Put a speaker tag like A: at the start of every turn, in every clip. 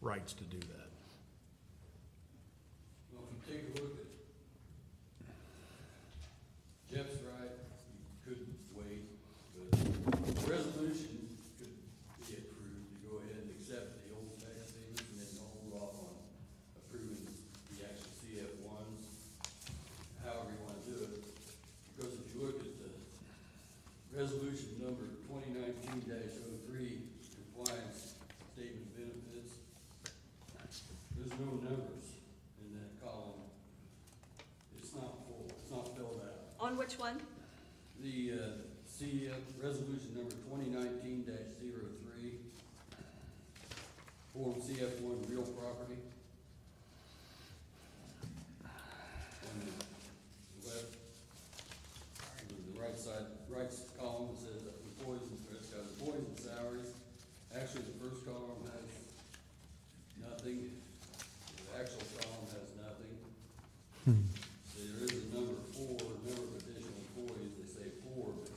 A: rights to do that.
B: Well, if you take a look at, Jeff's right, you could wait, but the resolution could be approved to go ahead and accept the old tax statement and then hold off on approving the actual CF one, however you wanna do it. Because if you look at the resolution number twenty nineteen 3 compliance statement benefits, there's no numbers in that column. It's not full, it's not filled out.
C: On which one?
B: The, uh, see, uh, resolution number twenty nineteen 3 Form CF one real property. On the left, on the right side, right column it says employees, and- it's got employees and salaries. Actually, the first column has nothing, the actual column has nothing. There is a number four, number of additional employees, they say four, but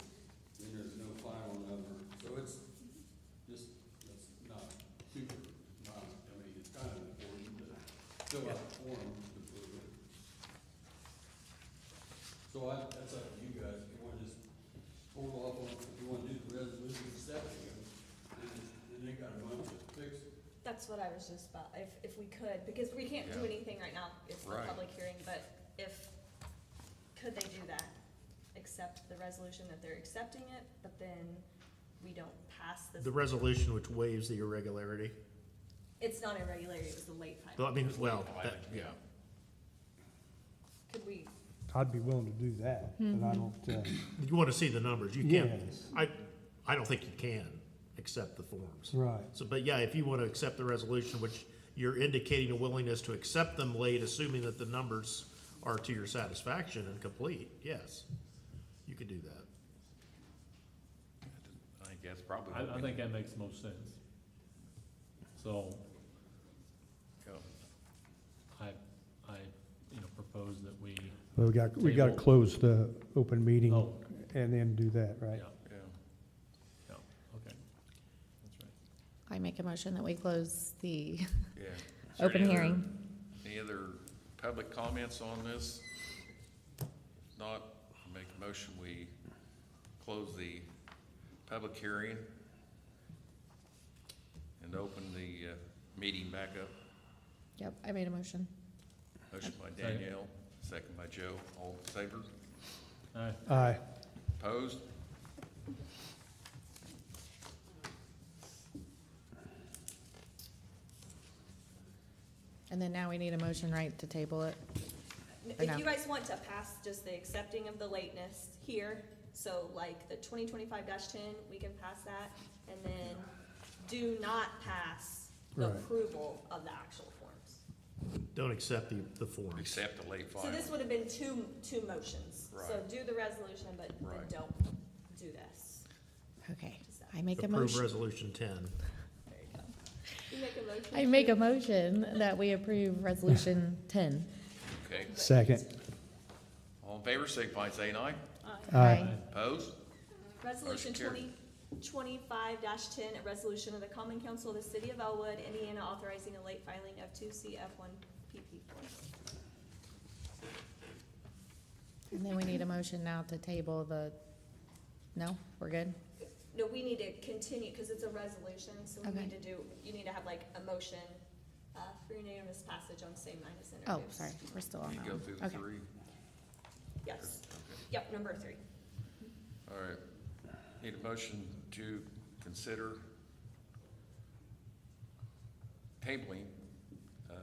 B: then there's no final number, so it's just, that's not super, not, I mean, it's kind of important to fill out the form to prove it. So I, that's up to you guys, if you wanna just hold off on, if you wanna do the resolution accepting it, then, then they got a month to fix it.
C: That's what I was just about, if, if we could, because we can't do
D: Yeah.
C: anything right now, it's the
D: Right.
C: public hearing, but if, could they do that? Accept the resolution that they're accepting it, but then we don't pass this,
A: The resolution which waives the irregularity,
C: it's not irregularity, it was the late
A: Well, I
C: filing.
A: mean, well, that, yeah,
C: Could we,
E: I'd be willing to do that, but I don't, uh,
A: you wanna see the numbers, you can't,
E: Yes.
A: I, I don't think you can accept the forms.
E: right.
A: So, but yeah, if you wanna accept the resolution, which you're indicating a willingness to accept them late, assuming that the numbers are to your satisfaction and complete, yes, you could do that.
D: I think that's probably. what
F: I, I
D: we
F: think
D: need.
F: that makes the most sense. So, I, I, you know, propose that we,
E: But we got, we gotta
F: Table.
E: close the open meeting
F: oh,
E: and then do that,
F: yeah,
E: right?
D: Yeah,
F: yeah, okay. That's right.
G: I make a motion that we close the
D: yeah. Is there
G: open
D: any other-
G: hearing.
D: Any other public comments on this? If Not, I make a motion, we close the public hearing and open the, uh, meeting back up.
G: Yep, I made a motion.
D: Motion by Danielle, second by Joe, all in favor?
F: All right,
E: Aye.
D: Opposed?
G: And then now we need a motion, right, to table it?
C: if
G: no.
C: you guys want to pass just the accepting of the lateness here, so like the twenty twenty-five ten, we can pass that, and then do not pass the
E: Right.
C: approval of the actual forms.
A: Don't accept the, the forms.
D: Accept the late
C: So
D: filing.
C: this would have been two, two motions. So
D: Right.
C: do the resolution, but then
D: Right.
C: don't do this.
G: Okay,
C: Does that-
G: I make a
A: Approve
G: motion.
A: resolution ten.
C: There you go. You make a motion.
G: I make a motion that we approve resolution ten.
D: Okay,
E: Second.
D: all in favor, signify by saying aye.
C: Aye.
E: Aye.
F: Aye.
D: Opposed?
C: Resolution
D: Motion
C: twenty, twenty-five ten, a resolution of the Common Council of the City of Elwood, Indiana, authorizing a late filing of two CF one PP forms.
G: And then we need a motion now to table the, no, we're good?
C: No, we need to continue, because it's a resolution, so we
G: Okay.
C: need to do, you need to have like a motion, uh, for unanimous passage on same line as
G: Oh,
C: introduced.
G: sorry, we're still on
D: You
G: that
D: go
G: one.
D: through the
G: Okay.
D: three.
C: Yes,
D: Okay.
C: yep, number three.
D: All right, need a motion to consider tabling, uh,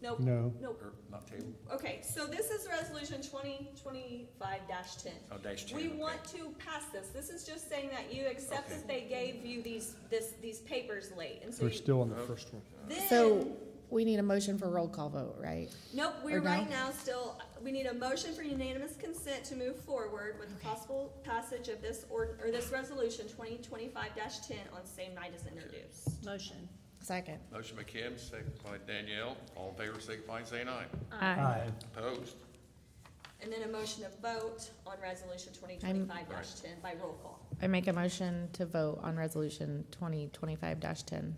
C: Nope,
E: No.
C: nope.
D: or not table,
C: Okay, so this is resolution twenty twenty-five ten.
D: oh, dash two.
C: We
D: okay.
C: want to pass this. This is just saying that you accept
D: Okay.
C: that they gave you these, this, these papers late, and so
E: We're
C: you,
E: still on the first one.
G: So
C: then,
G: we need a motion for roll call vote, right?
C: nope, we're
G: or no?
C: right now still, we need a motion for unanimous consent to move forward with possible passage of this ord, or this resolution twenty twenty-five ten on same night as introduced. Motion.
G: Second.
D: Motion by Kim, second by Danielle, all in favor, signify by saying aye.
E: Aye.
D: Opposed?
C: And then a motion to vote on resolution twenty twenty-five ten by roll call.
G: I make a motion to vote on resolution twenty twenty-five ten.